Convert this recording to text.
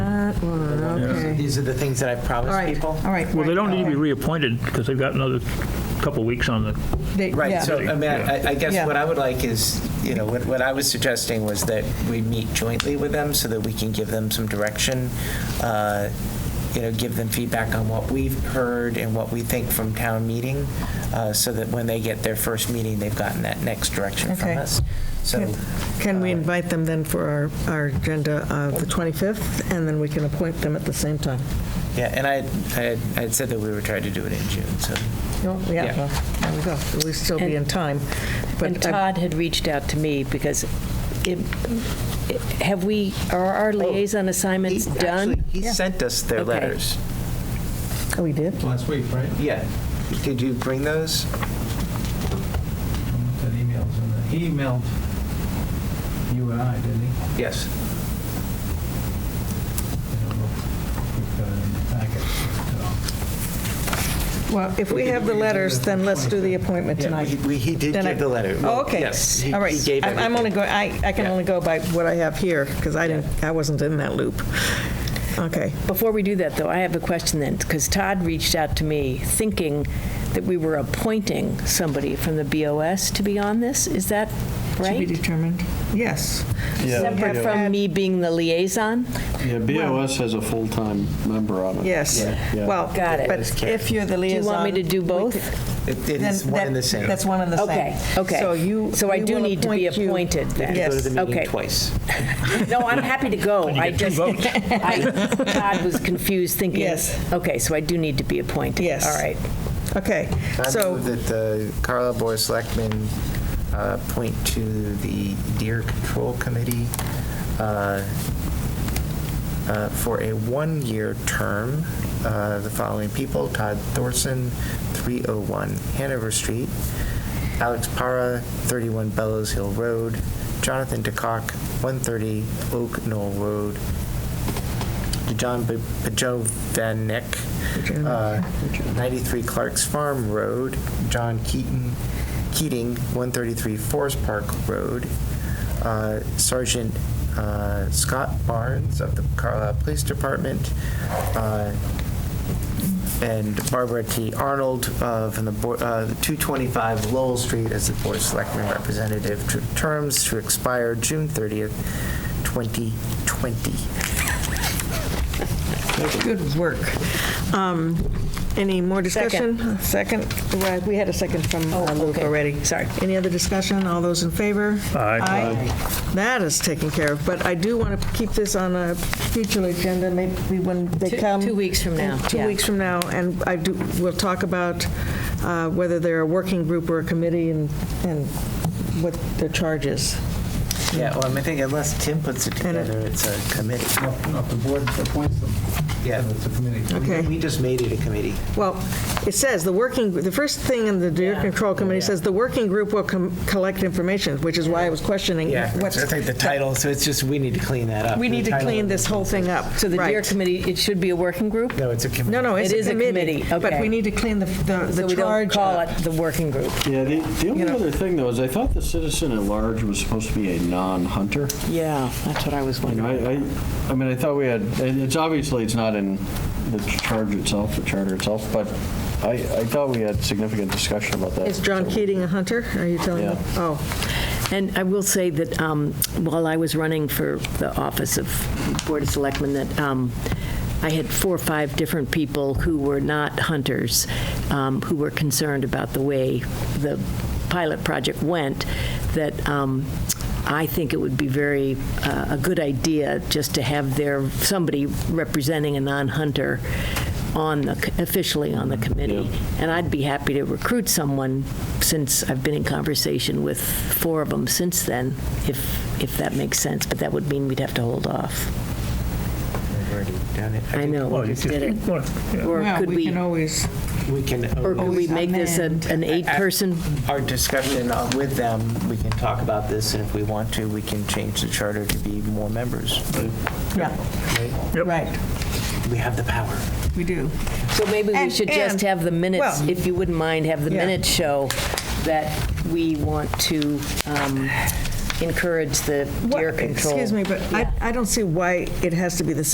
Flora, okay. These are the things that I All promised right, all people. right. Well, they don't need to be okay. reappointed because they've got another couple weeks on the, They- Right, yeah. so, I mean, I I guess Yeah. what I would like is, you know, what what I was suggesting was that we meet jointly with them so that we can give them some direction, uh, you know, give them feedback on what we've heard and what we think from town meeting, uh, so that when they get their first meeting, they've gotten that next direction from Okay. us. So, Can we invite them then for our, our agenda of the 25th, and then we can appoint them at the same time? yeah, and I I had- I had said that we were trying to do it in June, so. No, Yeah, Yeah. well, there we go. We'll still be in time. And But I- Todd had reached out to me because it- it- have we, are Oh, our liaison assignments He- done? actually, He sent us their Okay. letters. Oh, we did? Last week, right? Yeah. Did you bring those? That email's in there. He emailed you and I, didn't he? Yes. I don't know if we've got it in the packet, but, um, Well, if we have the letters, then let's do the appointment Yeah, tonight. we- we- He did Then I- give the letter. Oh, okay. Yes, he- All right. he gave I'm- I'm everything. only going, I, I can Yeah. only go by what I have here, because I didn't, I wasn't in that loop. Okay. Before we do that, though, I have a question then, because Todd reached out to me thinking that we were appointing somebody from the BOS to be on this. Is that right? determined. Yes. Separate from me being the liaison? Yeah, BOS has a full-time member on it. Yes. Yeah. Well. Got it. But if you're the Do liaison. you want me to do we both? could- It it Then is one and that- the same. That's one and the same. Okay, okay. So you. So I we do will need to be you- appointed then. You Go to Yes. the meeting Okay. twice. No, I'm happy to go. I get two just, votes. I- Todd was confused thinking. Yes. Okay, so I do need to be appointed. Yes. All right. Okay, I so, move that the Carla Board of Selectmen uh, appoint to the Deer Control Committee uh, uh, for a one-year term, uh, the following people, Todd Thorson, 301 Hanover Street, Alex Para, 31 Bellows Hill Road, Jonathan DeCock, 130 Oak Knoll Road, John Bajovanek, uh, 93 Clark's Farm Road, John Keaton, Keating, 133 Forest Park Road, uh, Sergeant uh, Scott Barnes of the Carlisle Police Department, uh, and Barbara T. Arnold uh, from the Board- uh, 225 Lowell Street as the Board of Selectmen representative, to- terms to expire June 30th, 2020. good work. Um, Any more discussion? Second, right, we had a second from uh, Luke Oh, okay. already. Sorry. Any other discussion? All those in favor? Aye. That is taken care of, but I do want to keep this on a future agenda, maybe when they Two- come. two weeks from now, Two yeah. weeks from now, and I do, we'll talk about uh, whether they're a working group or a committee and, and what their charge is. Yeah, well, I mean, I think unless Tim puts it And it- together, it's a committee. No, no, the board appoints them. Yeah. So It's a committee. Okay. We just made it a committee. Well, it says, the working, the first thing in the Deer Control Committee says, the working group will com- collect information, which is why I was questioning Yeah, I what's. think the title, so it's just, we need to clean that up. We need The to title- clean this whole thing up. So the deer Right. committee, it should be a working group? No, it's a committee. No, no, it's It a is a committee. committee, But okay. we need to clean the, the So the we don't charge call up. it the working group. Yeah, the, the only know- other thing though is I thought the citizen at large was supposed to be a non-hunter. Yeah, that's what I was You know, wondering. I, I, I mean, I thought we had, and it's obviously, it's not in the charge itself, the charter itself, but I, I thought we had significant discussion about that. Is John So- Keating a hunter? Are you telling me? Yeah. Oh, And I will say that um, while I was running for the office of Board of Selectmen, that um, I had four or five different people who were not hunters, um, who were concerned about the way the pilot project went, that um, I think it would be very, uh, a good idea just to have there, somebody representing a non-hunter on the, officially on the committee. And I'd be happy to recruit someone, since I've been in conversation with four of them since then, if, if that makes sense, but that would mean we'd have to hold off. We've already done it. I know, well, we you just did it. just, well, yeah. Or Well, could we we, can always, We can, uh, or could we always make this a- an eight-person? our discussion uh, with them, we can talk about this, and if we want to, we can change the charter to be more members. yeah, Yep. right, We have the power. we do. So maybe we And- should just and- have the minutes, well- if you wouldn't mind, have the Yeah. minutes show that we want to um, encourage the What- deer control. Excuse me, but I, I don't see why it has to be the